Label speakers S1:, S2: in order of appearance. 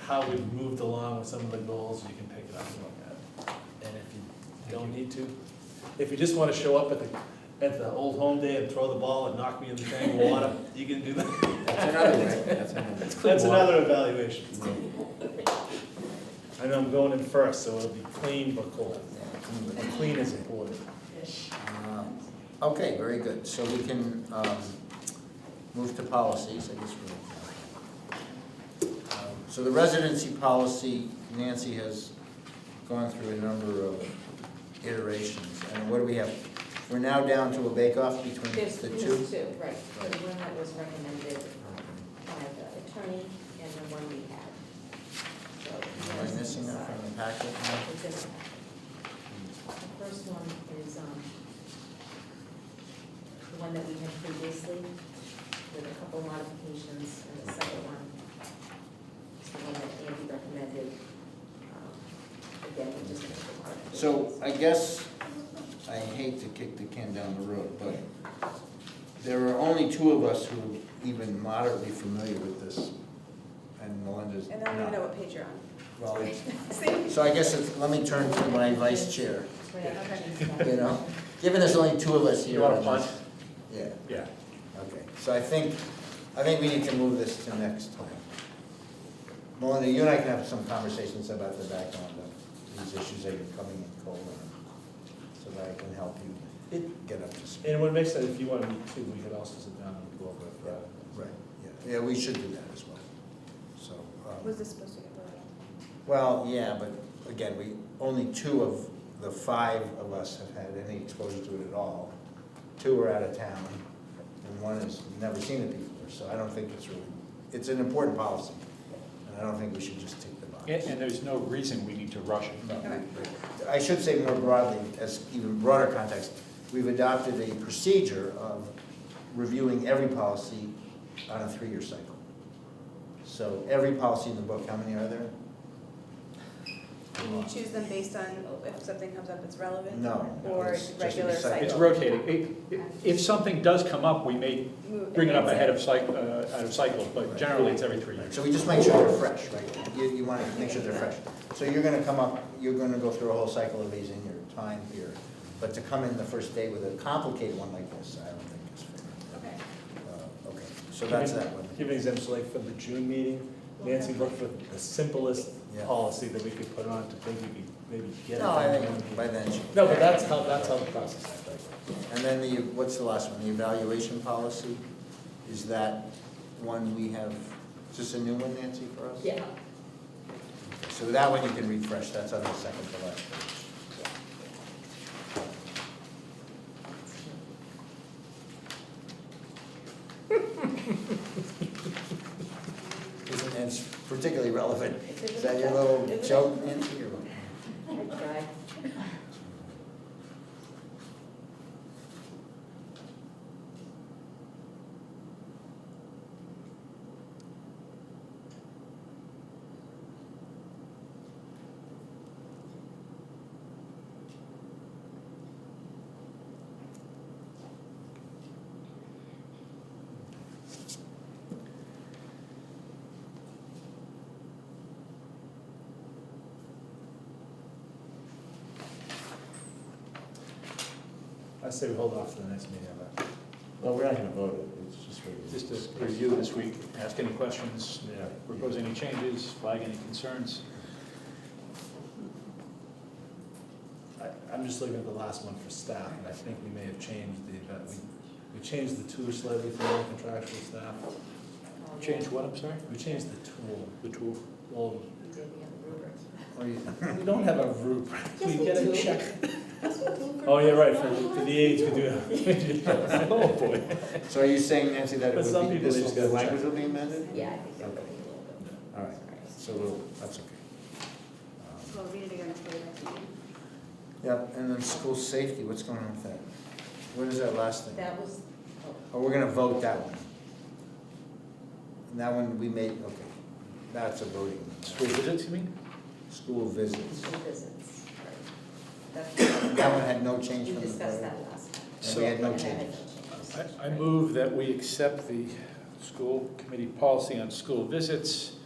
S1: how we've moved along with some of the goals, you can pick it up and look at. And if you don't need to, if you just wanna show up at the, at the old home day and throw the ball and knock me in the tank of water, you can do that.
S2: That's another way, that's another.
S1: That's another evaluation. I know I'm going in first, so it'll be clean but cold. Clean is important.
S2: Uh, Okay, very good, so we can um, move to policies, I guess we're. Um, So the residency policy, Nancy has gone through a number of iterations, and what do we have? We're now down to a bake-off between
S3: There's,
S2: the
S3: there's
S2: two?
S3: two, right, the
S2: Right.
S3: one that was recommended by the attorney and the one we had. So,
S2: Am I missing that from the packet?
S3: It's in the packet. The first one is, um, the one that we had previously, with a couple modifications, and the second one is the one that Andy recommended. Um, Again, we just. made the modifications.
S2: So I guess, I hate to kick the can down the road, but there are only two of us who are even moderately familiar with this, and Melinda's
S4: And I don't even know
S2: not.
S4: what page you're on.
S2: Well, it's-
S4: See?
S2: So I guess it's, let me turn to my vice chair,
S3: Right, okay.
S2: you know, given there's only two of us here.
S1: You want a
S2: on
S1: punch?
S2: this- Yeah,
S1: Yeah.
S2: okay, so I think, I think we need to move this to next time. Melinda, you and I can have some conversations about the background of these issues that you're coming in cold on, so that I can help you get up to speed.
S1: And what makes sense, if you wanna meet too, we could also sit down and go over it.
S2: Yeah, right, yeah, yeah, we should do that as well, so. um,
S4: Was this supposed to get voted on?
S2: Well, yeah, but again, we, only two of the five of us have had any exposure to it at all. Two are out of town, and one has never seen it before, so I don't think it's really, it's an important policy, and I don't think we should just tick the box.
S5: And, and there's no reason we need to rush it.
S2: I should say more broadly, as even broader context, we've adopted a procedure of reviewing every policy on a three-year cycle. So every policy in the book, how many are there?
S4: And you choose them based on if something comes up that's relevant?
S2: Uh, No, no,
S4: Or
S2: it's just a
S4: regular
S2: recycle.
S5: It's
S4: cycle?
S5: rotating. It- it- If something does come up, we may
S4: Move-
S5: bring it up ahead of cycle, out of cycle, but generally it's every three years.
S2: So we just make sure they're fresh, right? You, you wanna make sure they're fresh. So you're gonna come up, you're gonna go through a whole cycle of these in your time here. But to come in the first day with a complicated one like this, I don't think is fair.
S4: Okay.
S2: Uh, Okay, so that's that one.
S1: Give an example, like for the June meeting, Nancy looked for the simplest
S2: Yeah.
S1: policy that we could put on to think we could maybe get it.
S2: No, I
S1: done.
S2: think by then, she-
S1: No, but that's how, that's how the process happens.
S2: and then the, what's the last one? The evaluation policy? Is that one we have, is this a new one, Nancy, for us?
S3: Yeah.
S2: So that one you can refresh, that's on the second to last page. Isn't- And it's particularly relevant. Is that your little joke, Nancy? or what?
S3: I tried.
S1: I say we hold off for the next meeting, but.
S6: Well, we're not gonna vote it, it's just. really-
S5: Just to review this week, ask any questions,
S6: Yeah.
S5: propose any changes, flag any concerns.
S1: I, I'm just looking at the last one for staff, and I think we may have changed the, that we, we changed the tool slightly for all contractual staff.
S5: Change what, I'm sorry?
S1: We changed the tool.
S5: The tool.
S1: Well,
S3: We did the other rubric.
S2: What do you-
S1: we don't have a rubric.
S3: Yes, we
S1: get a
S3: do.
S1: check.
S3: That's what we do for-
S1: Oh, yeah, right, for, for the aides, we do. have-
S5: Oh, boy.
S2: So are you saying, Nancy, that it
S1: But some
S2: would be,
S1: people
S2: this
S1: just
S2: will, the
S1: gotta check.
S2: language will be amended?
S3: Yeah, I think they're really
S2: All right, so we'll, that's okay. Um,
S4: Well, read it again before the next meeting.
S2: Yep, and then school safety, what's going on with that? What is that last thing?
S3: That was, oh,
S2: Oh, we're gonna vote that one. And that one we made, okay, that's a voting.
S5: School visits, you mean?
S2: School visits.
S3: control visits. That's-
S2: That one had no change
S3: We
S2: from the
S3: discussed
S2: vote.
S3: that last time.
S2: And we had no
S3: And I had
S2: change.
S3: no changes.
S5: I, I move that we accept the school committee policy on school visits